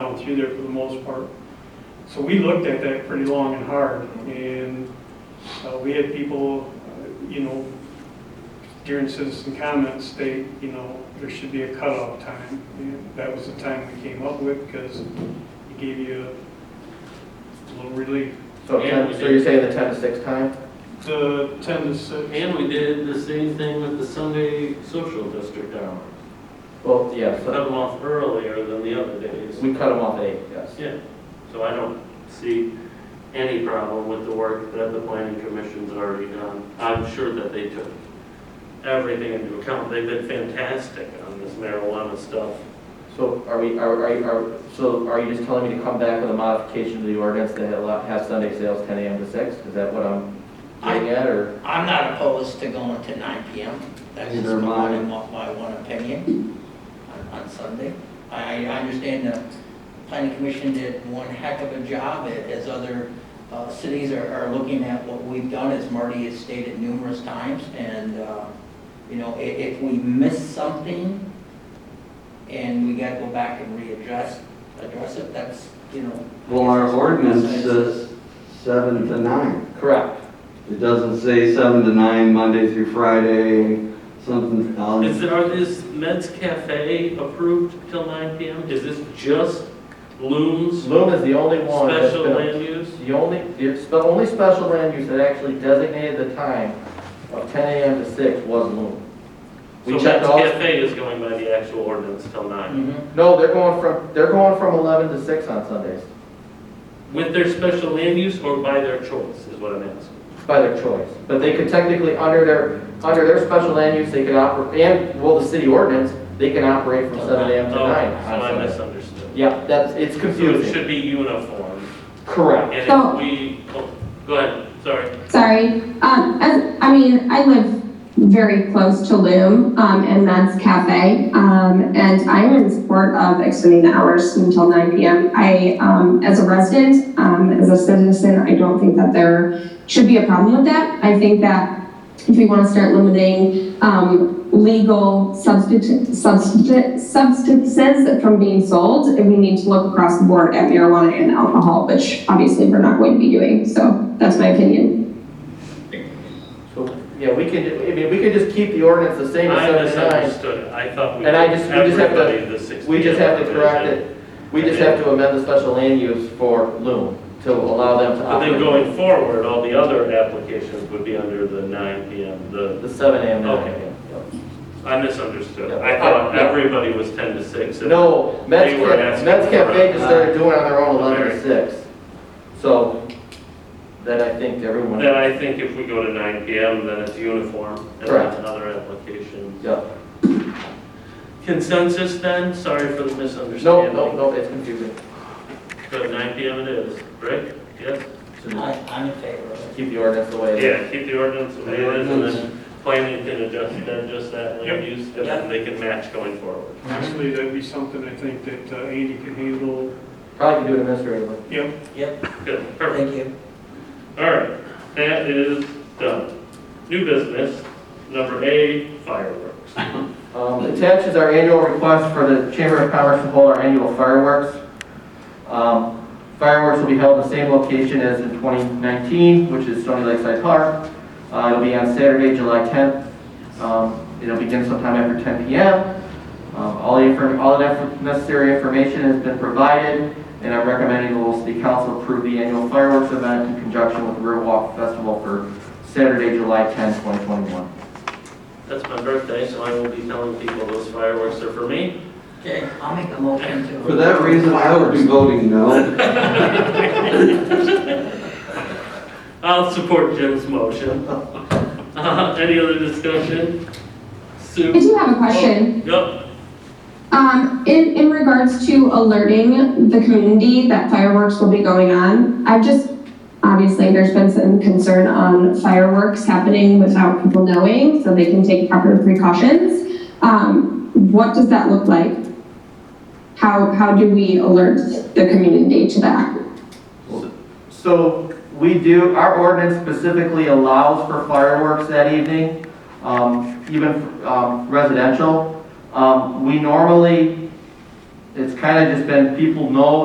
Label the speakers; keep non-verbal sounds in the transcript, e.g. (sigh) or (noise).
Speaker 1: down through there for the most part. So we looked at that pretty long and hard, and uh, we had people, uh, you know, during citizen comments, they, you know, there should be a cutoff time. And That was the time we came up with, because it gave you a little relief.
Speaker 2: So,
Speaker 3: Yeah, we
Speaker 2: ten- so
Speaker 3: did.
Speaker 2: you're saying the ten to six time?
Speaker 1: The 10 to 6,
Speaker 3: And we did the same thing with the Sunday social district hours.
Speaker 2: Well, yeah,
Speaker 3: Cut
Speaker 2: so
Speaker 3: them off earlier than the other days.
Speaker 2: we cut them off at eight, yes.
Speaker 3: Yeah, so I don't see any problem with the work that the planning commission's already done. I'm sure that they took everything into account. They've been fantastic on this marijuana stuff.
Speaker 2: So are we, are, are, you- are, so are you just telling me to come back with a modification to the ordinance that allow- has Sunday sales ten AM to six? Is that what I'm getting at, or?
Speaker 4: I'm not opposed to going to nine PM. That's just
Speaker 2: Neither am
Speaker 4: my,
Speaker 2: I.
Speaker 4: my one opinion on, on Sunday. I, I understand the planning commission did one heck of a job a- as other, uh, cities are, are looking at what we've done, as Marty has stated numerous times. And, uh, you know, i- if we miss something and we gotta go back and readdress, address it, that's, you know.
Speaker 5: Well, our ordinance says seven to nine.
Speaker 2: Correct.
Speaker 5: It doesn't say seven to nine, Monday through Friday, something
Speaker 2: Um,
Speaker 3: Is,
Speaker 5: else.
Speaker 3: there- are this Meds Cafe approved till 9 PM? Is this just Loom's
Speaker 2: Loom is the only one that's
Speaker 3: special
Speaker 2: been,
Speaker 3: land use?
Speaker 2: the only, it's the only special land use that actually designated the time of ten AM to six was Loom.
Speaker 3: So
Speaker 2: We checked
Speaker 3: Meds
Speaker 2: all,
Speaker 3: Cafe is going by the actual ordinance till 9,
Speaker 4: Mhm.
Speaker 2: no, they're going from, they're going from eleven to six on Sundays,
Speaker 3: with their special land use or by their choice, is what I'm asking.
Speaker 2: by their choice. But they could technically, under their, under their special land use, they could operate, and, well, the city ordinance, they can operate from seven AM to
Speaker 3: Oh,
Speaker 2: nine
Speaker 3: So
Speaker 2: on
Speaker 3: I
Speaker 2: Sundays.
Speaker 3: misunderstood.
Speaker 2: Yeah, that's, it's
Speaker 3: So it
Speaker 2: confusing.
Speaker 3: should be uniform,
Speaker 2: Correct.
Speaker 3: and
Speaker 6: So-
Speaker 3: if we, oh, go ahead, sorry.
Speaker 6: Sorry. Um, as, I mean, I live very close to Loom, um, and that's Cafe. Um, and I'm in support of extending the hours until 9 p.m. I, um, as a resident, um, as a citizen, I don't think that there should be a problem with that. I think that if we want to start limiting, um, legal substitute, substitute, substances from being sold, we need to look across the board at marijuana and alcohol, which obviously we're not going to be doing. So that's my opinion.
Speaker 2: So, yeah, we could, I mean, we could just keep the ordinance the same
Speaker 3: I
Speaker 2: as seven to nine.
Speaker 3: misunderstood, I thought we.
Speaker 2: And I
Speaker 3: did
Speaker 2: just- we just have to-
Speaker 3: everybody the 6
Speaker 2: We just have to
Speaker 3: PM
Speaker 2: correct
Speaker 3: provision.
Speaker 2: it. We just have to amend the special land use for Loom to allow them to
Speaker 3: But then
Speaker 2: operate
Speaker 3: going forward, all the other applications would be under the 9 PM, the,
Speaker 2: the seven AM to nine
Speaker 3: Okay.
Speaker 2: AM. Yep.
Speaker 3: I misunderstood.
Speaker 2: Yeah.
Speaker 3: I thought
Speaker 2: Yeah.
Speaker 3: everybody was 10 to 6. and-
Speaker 2: No, Mets
Speaker 3: They were
Speaker 2: Cafe,
Speaker 3: asking
Speaker 2: Mets
Speaker 3: for
Speaker 2: Cafe
Speaker 3: a-
Speaker 2: just started doing it on their own eleven to
Speaker 3: Alright.
Speaker 2: six. So, then I think everyone,
Speaker 3: Then I think if we go to 9 PM, then it's uniform, and
Speaker 2: Correct.
Speaker 3: then other applications.
Speaker 2: yeah,
Speaker 3: Consensus then, sorry for the
Speaker 2: no,
Speaker 3: misunderstanding.
Speaker 2: no, no, it's confusing.
Speaker 3: But 9 PM it is, Rick? Yes?
Speaker 2: So
Speaker 4: I,
Speaker 2: just
Speaker 4: I'm in favor of it.
Speaker 2: Keep the ordinance the way it is.
Speaker 3: Yeah, keep the ordinance the way it is, and then planning can adjust, then just that land use, and then they can match going forward.
Speaker 1: actually, that'd be something I think that uh, Andy can handle.
Speaker 2: Probably can do it administratively.
Speaker 1: Yep,
Speaker 4: Yep,
Speaker 3: Good, perfect.
Speaker 4: thank you.
Speaker 3: All right, that is done. New business, number A, fireworks.
Speaker 2: Um, attached is our annual request for the Chamber of Commerce to hold our annual fireworks. Um, fireworks will be held in the same location as in 2019, which is Stony Lakeside Park. Uh, it'll be on Saturday, July 10th. Um, it'll begin sometime after 10 p.m. Um, all the infor- all the nef- necessary information has been provided, and I'm recommending the Lowell City Council approve the annual fireworks event in conjunction with Riverwalk Festival for Saturday, July 10th, 2021.
Speaker 3: That's my birthday, so I will be telling people those fireworks are for me.
Speaker 4: Okay, I'll make a motion to.
Speaker 5: For that reason, I would be voting no.
Speaker 3: I'll support Jim's motion. (laughs) Uh, Any other discussion?
Speaker 6: I (laughs)
Speaker 3: Sue?
Speaker 6: do have a question.
Speaker 3: Yep,
Speaker 6: Um, in, in regards to alerting the community that fireworks will be going on, I've just, obviously, there's been some concern on fireworks happening without people knowing, so they can take proper precautions. Um, what does that look like? How, how do we alert the community to that?
Speaker 2: So we do, our ordinance specifically allows for fireworks that evening, um, even um, residential. Um, We normally, it's kind of just been, people know